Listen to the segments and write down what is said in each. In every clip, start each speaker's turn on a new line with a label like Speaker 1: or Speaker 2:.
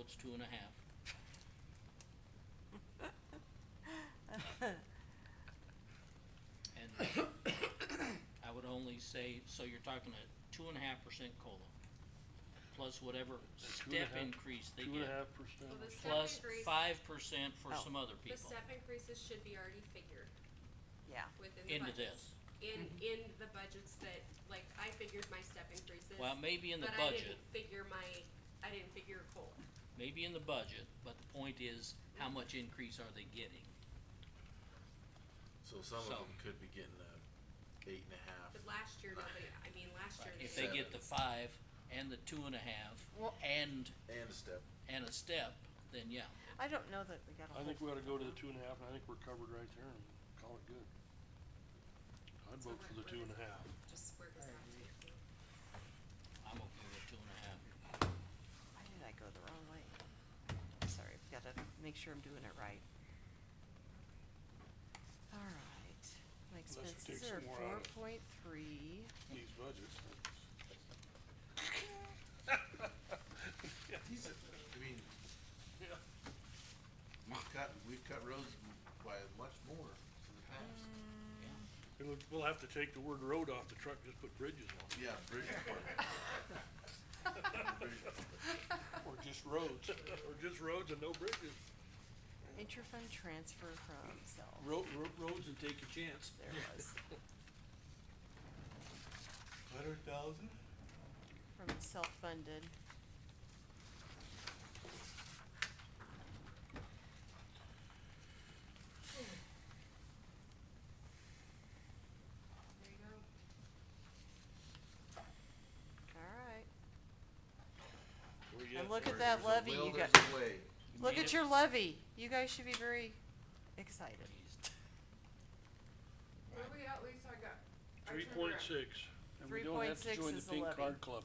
Speaker 1: it's two and a half. And I would only say, so you're talking a two and a half percent COLA, plus whatever
Speaker 2: Two and a
Speaker 1: step
Speaker 2: half-
Speaker 1: increase they
Speaker 2: Two and a
Speaker 1: get,
Speaker 2: half percent.
Speaker 3: Well, the step
Speaker 1: plus
Speaker 3: increase-
Speaker 1: five percent for
Speaker 4: Oh.
Speaker 1: some other
Speaker 3: The
Speaker 1: people
Speaker 3: step increases should be already figured
Speaker 4: Yeah,
Speaker 3: within the
Speaker 1: into this.
Speaker 3: budgets. In, in the budgets that, like, I figured my step increases,
Speaker 1: Well, maybe in the
Speaker 3: but I
Speaker 1: budget,
Speaker 3: didn't figure my, I didn't figure COLA.
Speaker 1: maybe in the budget, but the point is,
Speaker 3: Mm-hmm.
Speaker 1: how much increase are they getting?
Speaker 5: So some
Speaker 1: So-
Speaker 5: of them could be getting a eight and a half.
Speaker 3: But last year, nobody, I mean, last year.
Speaker 1: If they get the five and the two and a half
Speaker 4: Well-
Speaker 1: and,
Speaker 5: And a step.
Speaker 1: and a step, then yeah.
Speaker 4: I don't know that we got a
Speaker 2: I
Speaker 4: whole,
Speaker 2: think we ought to go to the two and a half, and I think we're covered right there and call it good. I'd
Speaker 3: So
Speaker 2: vote for
Speaker 3: we're-
Speaker 2: the two and a half.
Speaker 3: Just where does that take you?
Speaker 1: I'm okay with two and a half.
Speaker 4: why did I go the wrong way? I'm sorry, I've gotta make sure I'm doing it right. Alright, my
Speaker 2: Unless we take
Speaker 4: expenses
Speaker 2: some
Speaker 4: are
Speaker 2: more
Speaker 4: four
Speaker 2: out of-
Speaker 4: point three,
Speaker 2: These budgets.
Speaker 5: These, are- I mean, we've cut, we've cut roads by much more in the past.
Speaker 4: Mm.
Speaker 2: We'll, we'll have to take the word road off the truck, just put bridges on
Speaker 5: Yeah, bridge department. Bridge department.
Speaker 2: it, or just roads, or just roads and no bridges.
Speaker 4: interfund transfer from self,
Speaker 2: Road, roads and take a chance.
Speaker 4: there it was,
Speaker 5: Hundred thousand?
Speaker 4: from self-funded.
Speaker 3: There you go.
Speaker 4: Alright,
Speaker 2: Where you
Speaker 4: And
Speaker 2: at?
Speaker 4: look at that levy you got, look
Speaker 1: made
Speaker 4: at
Speaker 1: it.
Speaker 4: your levy, you guys should be very excited.
Speaker 6: Where we at least I got. I
Speaker 2: Three
Speaker 6: turned
Speaker 2: point
Speaker 6: around.
Speaker 2: six.
Speaker 4: And we don't have to 3.6 join the is the pink levy. card
Speaker 2: club.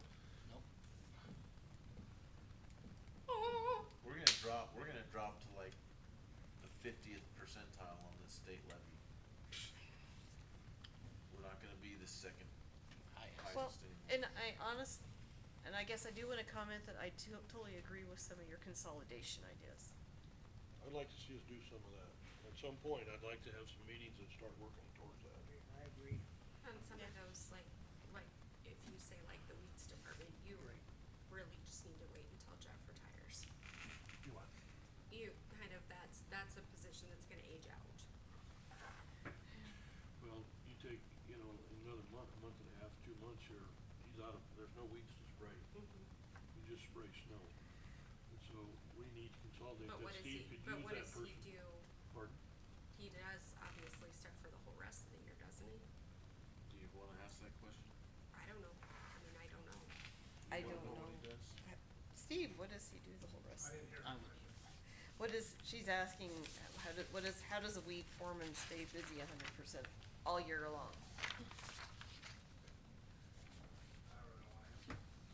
Speaker 6: Oh,
Speaker 5: We're gonna drop, we're gonna drop to like the fiftieth percentile on this state levy. We're not gonna be the second
Speaker 1: Highest.
Speaker 4: Well,
Speaker 5: highest
Speaker 4: and
Speaker 5: anymore.
Speaker 4: I honest, and I guess I do wanna comment that I to- totally agree with some of your consolidation ideas.
Speaker 2: I'd like to see us do some of that. At some point, I'd like to have some meetings and start working towards that.
Speaker 3: On some of those, like, like, if you say like the weeds department, you re- really just need to wait until Jeff retires.
Speaker 2: You what?
Speaker 3: You, kind of, that's, that's a position that's gonna age out.
Speaker 2: Well, you take, you know, another month, a month and a half, two months here, he's out of, there's no weeds to spray.
Speaker 3: Mm-hmm.
Speaker 2: You just spray snow. And so we need to consolidate
Speaker 3: But
Speaker 2: that.
Speaker 3: what is
Speaker 2: Steve
Speaker 3: he,
Speaker 2: could
Speaker 3: but
Speaker 2: use
Speaker 3: what
Speaker 2: that
Speaker 3: does
Speaker 2: person.
Speaker 3: he do?
Speaker 2: Pardon?
Speaker 3: He does obviously stuff for the whole rest of the year, doesn't he?
Speaker 5: Do you wanna ask that question?
Speaker 3: I don't know. I mean, I don't know.
Speaker 4: I
Speaker 5: You wanna
Speaker 4: don't know.
Speaker 5: What he does?
Speaker 4: Steve, what does he do the whole rest? of the-
Speaker 1: I would,
Speaker 4: What is, she's asking, how do, what is, how does a weed foreman stay busy a hundred percent all year long?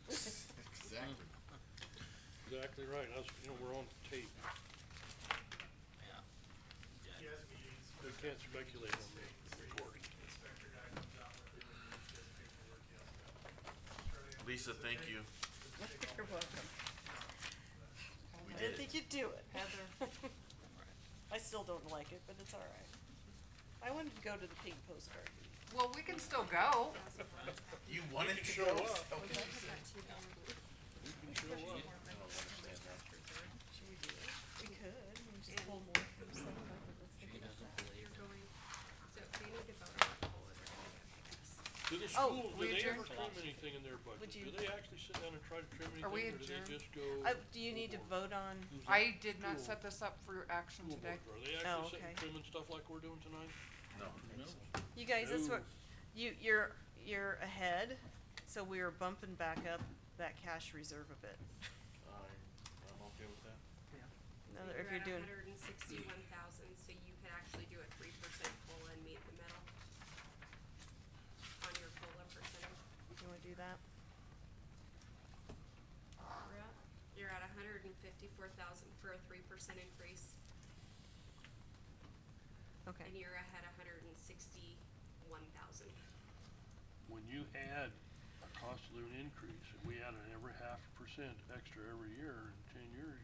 Speaker 5: Exactly.
Speaker 2: Exactly right. I was, you know, we're on tape.
Speaker 1: yeah.
Speaker 7: He has meetings.
Speaker 2: They
Speaker 7: with
Speaker 2: can't speculate on me.
Speaker 7: the
Speaker 2: Recording.
Speaker 7: Inspector guy comes out with it, and he does paperwork, he has to-
Speaker 5: Lisa, thank you.
Speaker 4: You're welcome. I
Speaker 5: We did
Speaker 4: didn't
Speaker 5: it.
Speaker 4: think you'd do it, Heather. I still don't like it, but it's all right. I wanted to go to the pink postcard. meeting.
Speaker 6: Well, we can still go.
Speaker 5: You wanted
Speaker 2: can
Speaker 5: to
Speaker 2: show
Speaker 5: go?
Speaker 2: up.
Speaker 5: Is that what you said?
Speaker 2: You can show up.
Speaker 5: I don't understand that.
Speaker 4: Should we do it? We could, we can just pull more from some of them, let's think
Speaker 1: She
Speaker 4: about
Speaker 1: doesn't
Speaker 4: that.
Speaker 1: believe it.
Speaker 3: You're going, so they need to vote on the whole of it, I guess.
Speaker 2: Do the
Speaker 4: Oh,
Speaker 2: school, do
Speaker 4: we
Speaker 2: they ever
Speaker 4: adjourn?
Speaker 2: trim anything in their budget?
Speaker 4: Would
Speaker 2: Do
Speaker 4: you-
Speaker 2: they actually sit down and try to trim
Speaker 6: Are we
Speaker 2: anything, or do they just
Speaker 6: adjourned?
Speaker 2: go?
Speaker 4: Uh, do you need to
Speaker 2: overboard?
Speaker 4: vote on,
Speaker 6: I did not
Speaker 2: Cool.
Speaker 6: set this up for your action
Speaker 2: School
Speaker 6: today.
Speaker 2: board, Are they
Speaker 4: Oh,
Speaker 2: actually sitting
Speaker 4: okay.
Speaker 2: trimming stuff like we're doing tonight?
Speaker 5: No.
Speaker 1: No,
Speaker 4: you guys, that's what,
Speaker 2: No.
Speaker 4: you, you're, you're ahead, so we are bumping back up that cash reserve a bit.
Speaker 5: I, I'm okay with that.
Speaker 4: No, if you're doing,
Speaker 3: hundred and sixty-one thousand, so you could actually do a three percent COLA and meet the middle on your COLA percentage.
Speaker 4: you wanna do that?
Speaker 3: You're at- You're at hundred and fifty-four thousand for a three percent increase,
Speaker 4: Okay.
Speaker 3: and you're ahead hundred and sixty-one thousand.
Speaker 2: when you add a cost of living increase, and we add an every half percent extra every year in ten years,